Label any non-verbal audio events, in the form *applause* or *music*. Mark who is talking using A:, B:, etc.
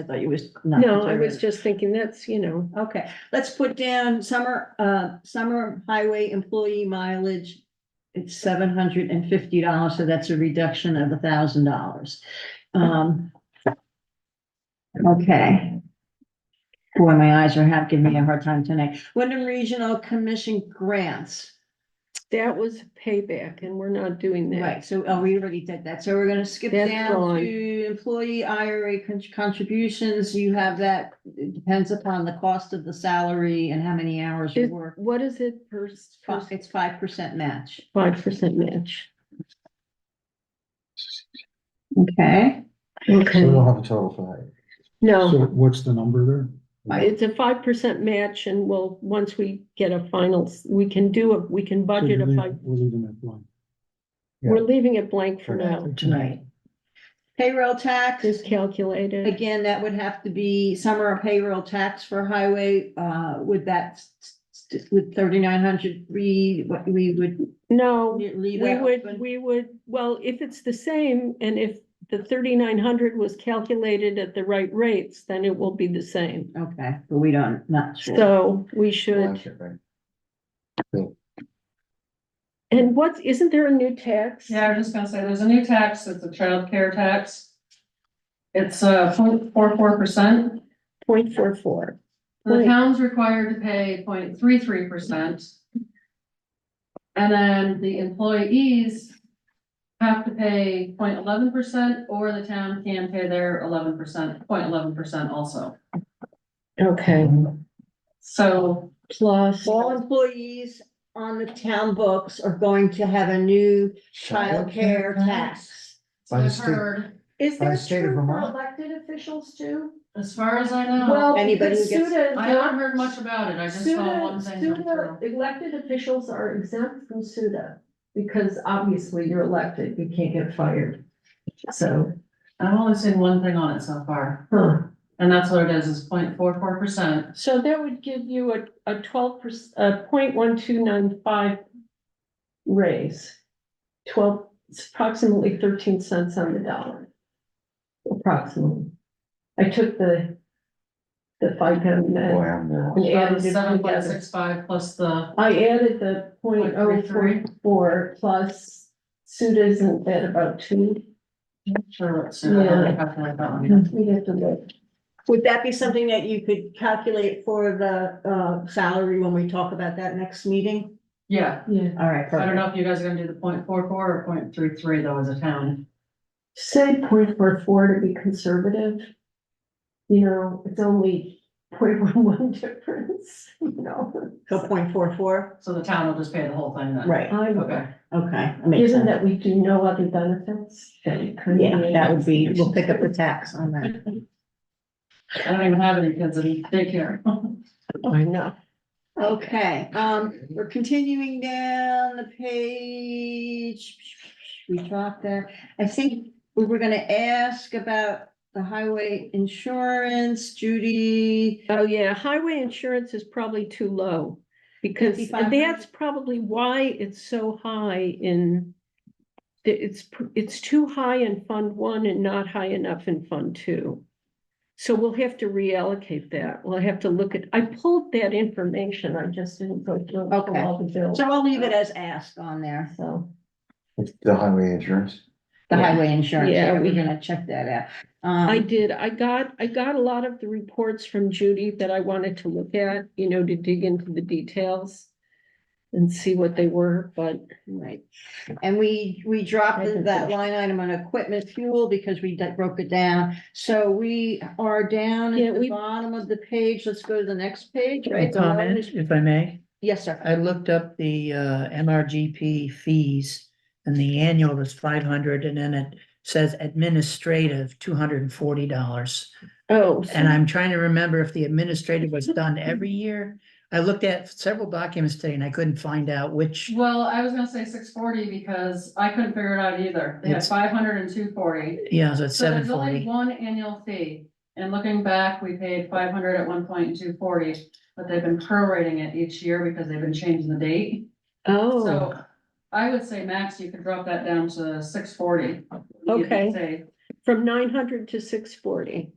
A: I thought you was not.
B: No, I was
A: conservative.
B: just thinking that's, you know,
A: Okay, let's put down summer, uh, summer highway employee mileage. It's seven hundred and fifty dollars, so that's a reduction of a thousand dollars. Um. Okay. Boy, my eyes are half giving me a hard time tonight. Wyndham Regional Commission grants.
B: that was payback and we're not doing that.
A: Right, so, oh, we already did that, so we're gonna skip
B: That's
A: down
B: gone.
A: to employee IRA con- contributions, you have that, it depends upon the cost of the salary and how many hours you
B: Is-
A: work.
B: What is it per,
A: Fi- It's five percent match.
B: five percent match?
A: Okay.
C: We
B: Okay,
C: don't have a total for that.
B: no,
C: So what's the number there?
B: it's a five percent match and we'll, once we get a final, s- we can do a, we can
C: So
B: budget
C: you're
B: a five.
C: leaving- We're leaving that blank. Yeah.
B: We're leaving it blank for now,
A: Tonight. Payroll tax,
B: just calculate it.
A: again, that would have to be summer payroll tax for highway, uh, would that s- s- with thirty-nine hundred, we, what we would
B: No,
A: leave
B: we
A: that
B: would,
A: open?
B: we would, well, if it's the same and if the thirty-nine hundred was calculated at the right rates, then it will be the same.
A: Okay, but we don't, not sure.
B: So we should, and what's, isn't there a new tax?
D: Yeah, I was just gonna say, there's a new tax, it's a childcare tax. It's uh point four four percent,
B: Point four four.
D: the
B: Right.
D: town's required to pay point three three percent. And then the employees have to pay point eleven percent, or the town can pay their eleven percent, point eleven percent also.
B: Okay,
D: So,
B: plus,
A: All employees on the town books are going to have a new childcare tax.
D: so
C: By the
D: I've
C: state-
D: heard,
E: Is
C: By the
E: that
C: state of
E: true for
C: Vermont.
E: elected officials too?
D: as far as I know,
E: Well,
A: Anybody
E: because
A: who gets-
E: SUDA,
D: I haven't heard much about it, I just saw
E: SUDA,
D: one thing. come through.
E: SUDA, elected officials are exempt from SUDA. Because obviously you're elected, you can't get fired. So,
D: I've only seen one thing on it so far.
E: huh,
D: And that's what it is, is 0.44 percent.
B: so that would give you a, a twelve percent, a point one two nine five raise. Twelve, it's approximately thirteen cents on the dollar.
E: approximately.
B: I took the, the five pound. uh, and added it
D: Seven point
B: together.
D: six five plus the,
B: I added the point oh four
D: 0.33.
B: four plus Suda isn't that about two?
D: sure, it's, I don't have to write that one.
A: Mm-hmm.
B: We have to look.
A: Would that be something that you could calculate for the uh salary when we talk about that next meeting?
D: Yeah,
B: Yeah.
A: All right,
D: I don't
A: perfect.
D: know if you guys are gonna do the 0.44 or 0.33 though as a town.
B: Say point four four to be conservative. You know, it's only point *laughs* one one difference, *laughs* you know?
A: So point four four,
D: So the town will just pay the whole thing then.
A: right,
B: I,
D: Okay,
A: okay. that makes sense.
B: given that we do no other benefits. then it could be-
A: Yeah, that would be, we'll pick up the tax on that.
D: I don't even have any kids in daycare.
B: I know.
A: Okay, um, we're continuing down the page. We dropped that. I think we were gonna ask about the highway insurance, Judy.
B: Oh, yeah, highway insurance is probably too low. Because
A: 5,500?
B: that's probably why it's so high in. the- It's, pr- it's too high in Fund One and not high enough in Fund Two. So we'll have to reallocate that. We'll have to look at, I pulled that information. I just didn't go through
A: Okay.
B: all the bills.
A: So I'll leave it as asked on there,
B: So,
C: The highway insurance.
A: the
B: Yeah.
A: highway insurance.
B: Yeah,
A: We're
B: we-
A: gonna check that out.
B: I
A: Um,
B: did, I got, I got a lot of the reports from Judy that I wanted to look at, you know, to dig into the details. And see what they were, but
A: Right, and we, we dropped
B: I can
A: that
B: finish.
A: line item on equipment fuel because we di- broke it down. So we are down
B: Yeah,
A: at the
B: we-
A: bottom of the page. Let's go to the next page,
F: A
A: right? The one
F: comment,
A: is-
F: if I may.
A: Yes, sir.
F: I looked up the uh MRGP fees and the annual is five hundred and then it says administrative, two hundred and forty dollars.
B: Oh,
F: And I'm trying to remember if the administrative was done every year. I looked at several documents today and I couldn't find out which.
D: Well, I was gonna say six forty because I couldn't figure it out either. They had
F: It's-
D: five hundred and two forty.
F: Yeah, so it's
D: So
F: seven
D: there's only
F: forty.
D: one annual fee, and looking back, we paid five hundred at one point and two forty, but they've been prorating it each year because they've been changing the date.
B: oh,
D: So I would say max, you could drop that down to six forty.
B: Okay. from nine hundred to six forty.